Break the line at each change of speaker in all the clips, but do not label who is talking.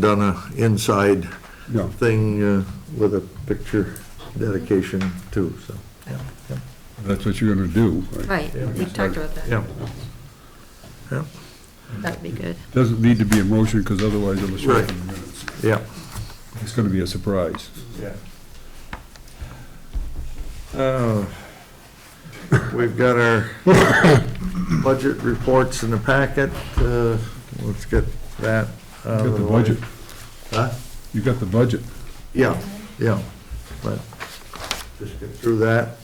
done a inside
No.
thing uh, with a picture dedication too, so. yeah, yeah,
That's what you're gonna do.
Right, we talked about that.
Yeah. Yeah,
That'd be good.
Doesn't need to be a motion, because otherwise it'll show up in the minutes.
yeah.
It's gonna be a surprise.
Oh, We've got our budget reports in the packet. uh, Let's get that
You
out
got
of
the
the way.
budget,
Huh?
you got the budget.
Yeah, yeah, but just get through that.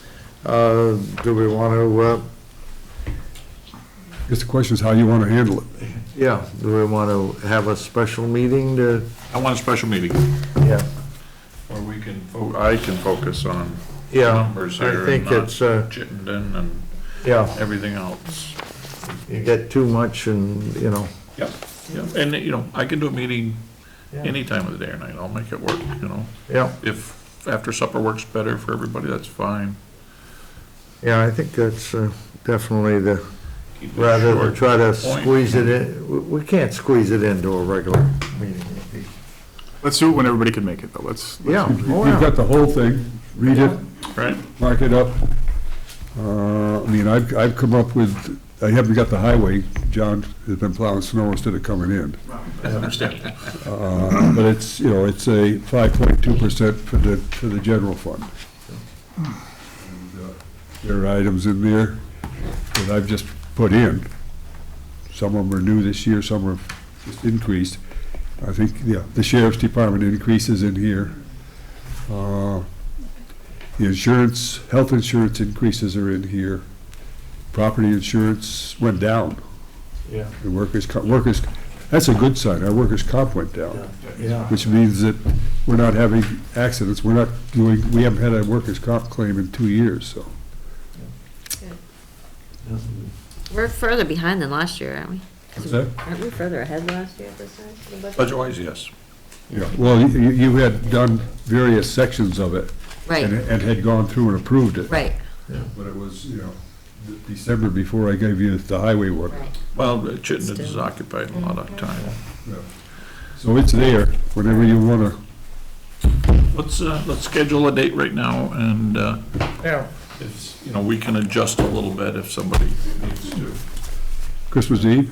Uh, Do we uh, want to,
Guess the question is how you wanna handle it.
yeah, do we want to have a special meeting to,
I want a special meeting
yeah.
where we can, fo- Oh, I can focus on
Yeah,
numbers
I
here and
think
not
it's, uh,
Chittenden and
yeah,
everything else.
you get too much and, you know.
Yep, yep. And, you know, I can do a meeting
Yeah.
any time of the day or night. I'll make it work, you know.
Yeah,
If after supper works better for everybody, that's fine.
yeah, I think that's uh, definitely the,
Keep it
rather than
short,
try to
point.
squeeze it in, we- we can't squeeze it into a regular meeting.
Let's do it when everybody can make it, though. Let's,
Yeah,
You've
oh, yeah,
got the whole thing, read it,
Right?
mark it up. Uh, I mean, I've, I've come up with, I haven't got the highway, John has been plowing snow instead of coming in.
I understand.
Uh, But it's, you know, it's a five point two percent for the, for the general fund. And, uh, There are items in there that I've just put in. Some of them are new this year, some are just increased. I think, yeah, the sheriff's department increases in here. Uh, The insurance, health insurance increases are in here. Property insurance went down.
Yeah.
The workers, co- workers, that's a good sign, our workers' comp went down,
yeah,
which means that we're not having accidents, we're not doing, we haven't had a workers' comp claim in two years, so.
We're further behind than last year, aren't we?
What's that?
Aren't we further ahead last year this time? for the budget?
Budget-wise, yes.
Yeah, well, you, you you had done various sections of it. And,
Right,
and had gone through and approved it.
right,
But it was, you know, de- December before I gave you the highway work.
right.
Well, uh, Chittenden is occupied a lot of time.
So it's there, whenever you wanna,
Let's, uh, let's schedule a date right now and, uh,
yeah.
it's, you know, we can adjust a little bit if somebody needs to.
Christmas Eve,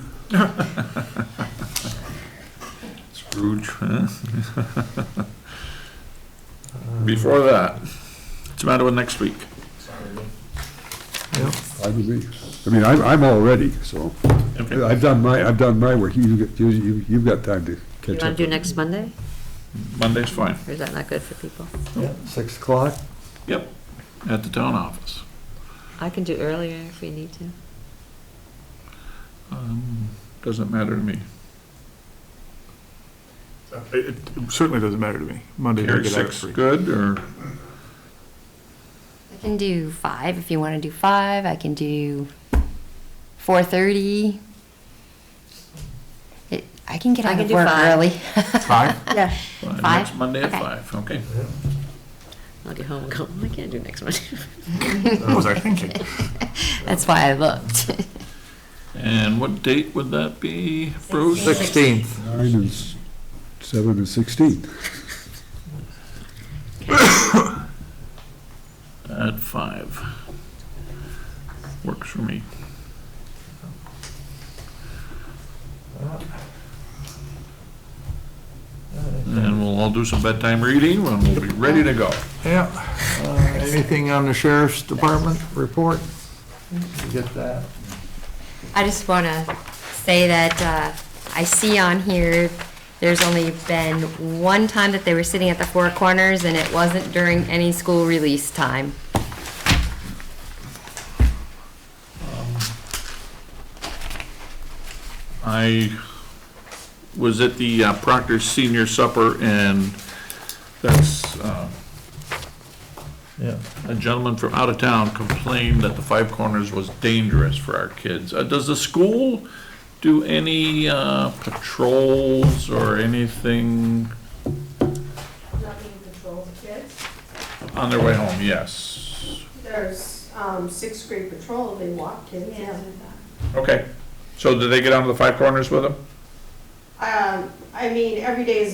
Scrooge, huh? Before that, it's matter with next week.
I believe. I mean, I'm, I'm all ready, so.
Okay.
I've done my, I've done my work, you, you, you- you've got time to
You
catch
wanna
up.
do next Monday,
Monday's fine.
or is that not good for people?
Yeah, Six o'clock?
Yep, at the town office.
I can do earlier if we need to.
Um, Doesn't matter to me.
Uh, it it certainly doesn't matter to me. Monday, I
Carrie,
get out at
six,
three.
good, or
I can do five if you want to do five. I can do four thirty. I can get
I
out
can
of
do
work
five.
early.
Five?
Yeah.
uh,
Five?
next Monday at
Okay.
five, okay?
I'll get home and go, "Oh, I can't do next Monday.
Oh,
What was I thinking?
That's why I looked.
And what date would that be, Bruce?
Sixteenth.
Nine and s- seven and sixteen.
At five. Works for me. And we'll all do some bedtime reading, and we'll be ready to go.
Yeah. Uh, Anything on the sheriff's department report? You Get that?
I just want to say that uh, I see on here, there's only been one time that they were sitting at the Four Corners, and it wasn't during any school release time.
I was at the uh, Proctor Senior Supper, and that's, uh,
Yeah.
a gentleman from out of town complained that the Five Corners was dangerous for our kids. Uh, Does the school do any uh, patrols or anything?
nothing patrols kids.
On their way home, yes.
There's um, sixth grade patrol, they walk kids.
Okay. So did they get onto the Five Corners with them?
Um, I mean, every day is